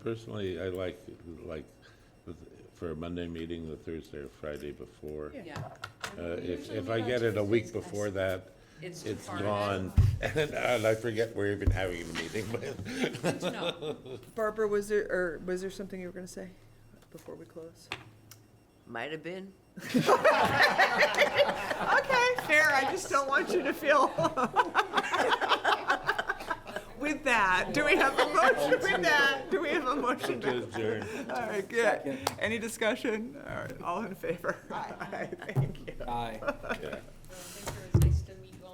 Personally, I like, like, for a Monday meeting, the Thursday or Friday before. Yeah. Uh, If, if I get it a week before that, It's too it's far. gone, and I forget we're even having a meeting, but. Good to know. Barbara, was there, or was there something you were gonna say before we close? Might have been. Okay, fair, I just don't want you to feel. With that, do we have a motion with that? Do we have a motion? to- Adjourn. All right, good. Any discussion? All right, all in favor? Aye. Thank you. Aye. Yeah.